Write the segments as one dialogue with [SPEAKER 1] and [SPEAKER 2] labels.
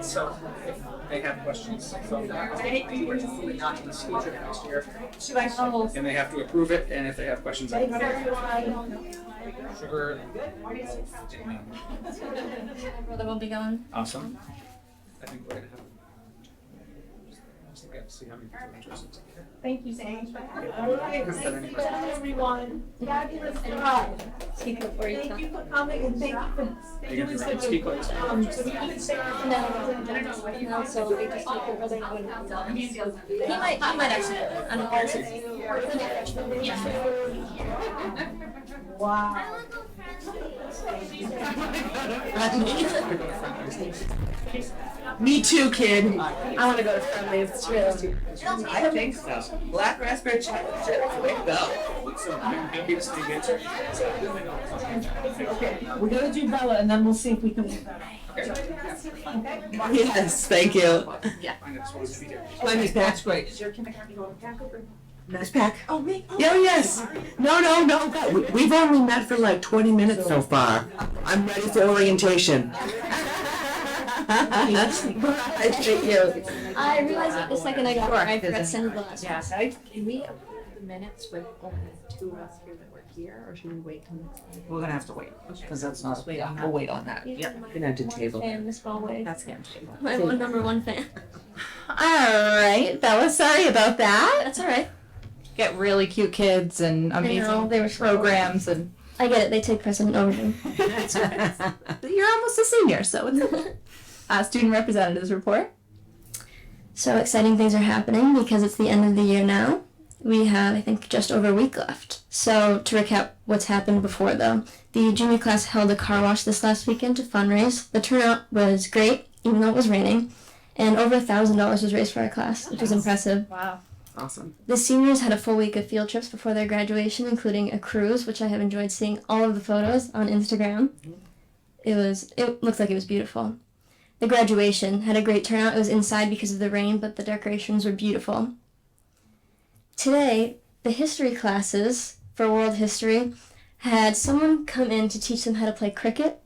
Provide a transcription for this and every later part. [SPEAKER 1] So if they have questions from that, we're hopefully not in the future next year,
[SPEAKER 2] Should I call?
[SPEAKER 1] and they have to approve it, and if they have questions, I can. Sugar.
[SPEAKER 2] Brother will be gone.
[SPEAKER 1] Awesome. I think we're gonna have. Just look at, see how many people are interested.
[SPEAKER 2] Thank you so much.
[SPEAKER 3] All right,
[SPEAKER 1] Is
[SPEAKER 3] nice
[SPEAKER 1] there
[SPEAKER 3] to
[SPEAKER 1] any
[SPEAKER 3] meet
[SPEAKER 1] questions?
[SPEAKER 3] everyone. Fabulous job.
[SPEAKER 2] Speak before you
[SPEAKER 3] Thank
[SPEAKER 2] talk.
[SPEAKER 3] you for coming and thank you for
[SPEAKER 1] Are you
[SPEAKER 3] doing
[SPEAKER 1] gonna
[SPEAKER 3] so much.
[SPEAKER 1] speak on this?
[SPEAKER 3] Um, so we can say our
[SPEAKER 2] No, no, so they just took your brother and went and done. He might, he might actually, I don't know.
[SPEAKER 3] Wow.
[SPEAKER 4] Me too, kid. I want to go to friendlies. It's really. I think so. Black raspberry chocolate chip. Way to go.
[SPEAKER 1] So I'm happy to speak answer.
[SPEAKER 4] We're gonna do Bella, and then we'll see if we can. Yes, thank you.
[SPEAKER 2] Yeah.
[SPEAKER 1] I just wanted to be there.
[SPEAKER 4] I mean, that's great.
[SPEAKER 3] Is your kindergarten going back over?
[SPEAKER 4] Nice pack.
[SPEAKER 3] Oh, me?
[SPEAKER 4] Oh, yes. No, no, no. God, we- We've only met for like 20 minutes so far. I'm ready for orientation. Bye. Thank you.
[SPEAKER 2] I realized it the second I got there, I forgot to send the last.
[SPEAKER 5] Yeah, so I, can we approve the minutes with only two of us here that were here, or should we wait till next time?
[SPEAKER 4] We're gonna have to wait, because that's not,
[SPEAKER 5] wait on
[SPEAKER 4] we'll wait on that.
[SPEAKER 2] Yeah.
[SPEAKER 4] We're gonna have to
[SPEAKER 2] One
[SPEAKER 4] table
[SPEAKER 2] fan,
[SPEAKER 4] that.
[SPEAKER 2] Miss Ballway.
[SPEAKER 5] That's the end table.
[SPEAKER 2] My one number one fan.
[SPEAKER 6] All right, Bella. Sorry about that.
[SPEAKER 2] That's all right.
[SPEAKER 6] Get really cute kids and amazing
[SPEAKER 2] know, they were so-
[SPEAKER 6] programs, and
[SPEAKER 2] I get it. They take precedent over him.
[SPEAKER 6] you're almost a senior, so it's okay. uh, student representatives report.
[SPEAKER 2] So exciting things are happening because it's the end of the year now. We have, I think, just over a week left. So to recap what's happened before, though, the junior class held a car wash this last weekend to fundraise. The turnout was great, even though it was raining, and over a thousand dollars was raised for our class, which was impressive.
[SPEAKER 5] Wow.
[SPEAKER 4] Awesome.
[SPEAKER 2] The seniors had a full week of field trips before their graduation, including a cruise, which I have enjoyed seeing all of the photos on Instagram. It was it looked like it was beautiful. The graduation had a great turnout. It was inside because of the rain, but the decorations were beautiful. Today, the history classes for world history had someone come in to teach them how to play cricket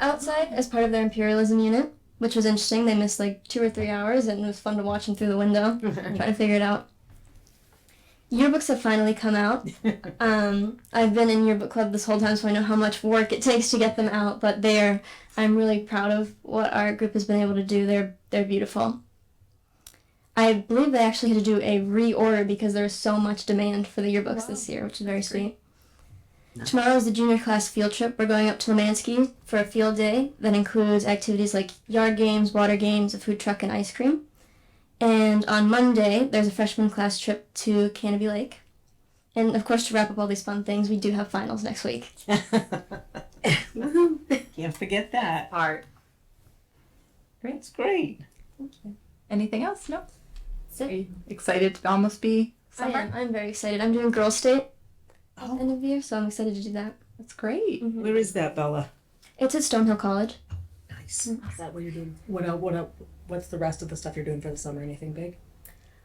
[SPEAKER 2] outside as part of their imperialism unit, which was interesting. They missed like two or three hours and it was fun to watch them through the window trying to figure it out. Yearbooks have finally come out. Um, I've been in yearbook club this whole time, so I know how much work it takes to get them out. But they're, I'm really proud of what our group has been able to do. They're they're beautiful. I believe they actually had to do a reorder because there was so much demand for the yearbooks this year, which is very sweet. Tomorrow is the junior class field trip. We're going up to Lemansky for a field day that includes activities like yard games, water games, a food truck, and ice cream. And on Monday, there's a freshman class trip to Canopy Lake. And of course, to wrap up all these fun things, we do have finals next week.
[SPEAKER 4] Can't forget that.
[SPEAKER 5] Art.
[SPEAKER 4] That's great.
[SPEAKER 6] Anything else? No.
[SPEAKER 2] it.
[SPEAKER 6] Are you excited to almost be summer?
[SPEAKER 2] I am. I'm very excited. I'm doing Girls State
[SPEAKER 4] Oh.
[SPEAKER 2] end of the year, so I'm excited to do that.
[SPEAKER 6] That's great.
[SPEAKER 4] Where is that, Bella?
[SPEAKER 2] It's at Stonehill College.
[SPEAKER 4] Nice.
[SPEAKER 3] Is that what you're doing?
[SPEAKER 7] What el what el what's the rest of the stuff you're doing for the summer? Anything big?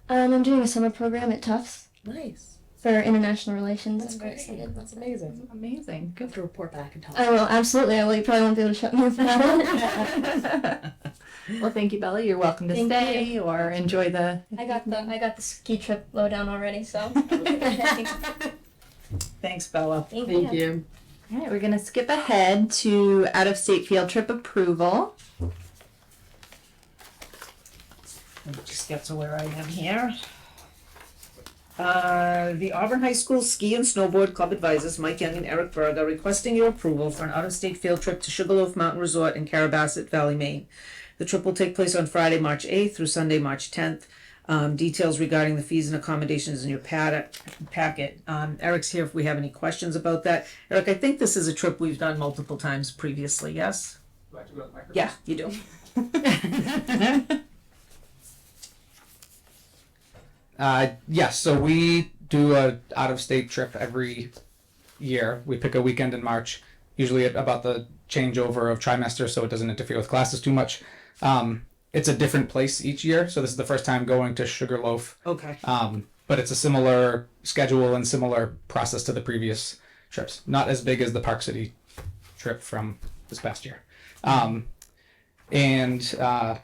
[SPEAKER 2] Um, I'm doing a summer program at Tufts
[SPEAKER 7] Nice.
[SPEAKER 2] for international relations. I'm very excited.
[SPEAKER 7] That's amazing.
[SPEAKER 6] Amazing.
[SPEAKER 7] You have to report back and tell us.
[SPEAKER 2] I will absolutely. I will. You probably won't be able to shut me up about it.
[SPEAKER 6] well, thank you, Bella. You're welcome to
[SPEAKER 2] Thank
[SPEAKER 6] stay or enjoy the.
[SPEAKER 2] I got the I got the ski trip low down already. So
[SPEAKER 4] Thanks, Bella.
[SPEAKER 2] Thank
[SPEAKER 5] Thank you.
[SPEAKER 6] All right, we're going to skip ahead to out of state field trip approval.
[SPEAKER 4] Let me just get to where I am here. Uh, the Auburn High School Ski and Snowboard Club advisors Mike Young and Eric Berg are requesting your approval for an out-of-state field trip to Sugarloaf Mountain Resort in Carabasset Valley, Maine. The trip will take place on Friday, March eighth through Sunday, March tenth. Um, details regarding the fees and accommodations in your pad- packet. Um, Eric's here if we have any questions about that. Eric, I think this is a trip we've done multiple times previously, yes?
[SPEAKER 1] Do I have to go to the microphone?
[SPEAKER 4] Yeah, you do.
[SPEAKER 1] Uh, yes, so we do a out of state trip every year. We pick a weekend in March, usually at about the changeover of trimester, so it doesn't interfere with classes too much. Um, it's a different place each year, so this is the first time going to Sugarloaf.
[SPEAKER 4] Okay.
[SPEAKER 1] Um, but it's a similar schedule and similar process to the previous trips. Not as big as the Park City trip from this past year. Um, and uh,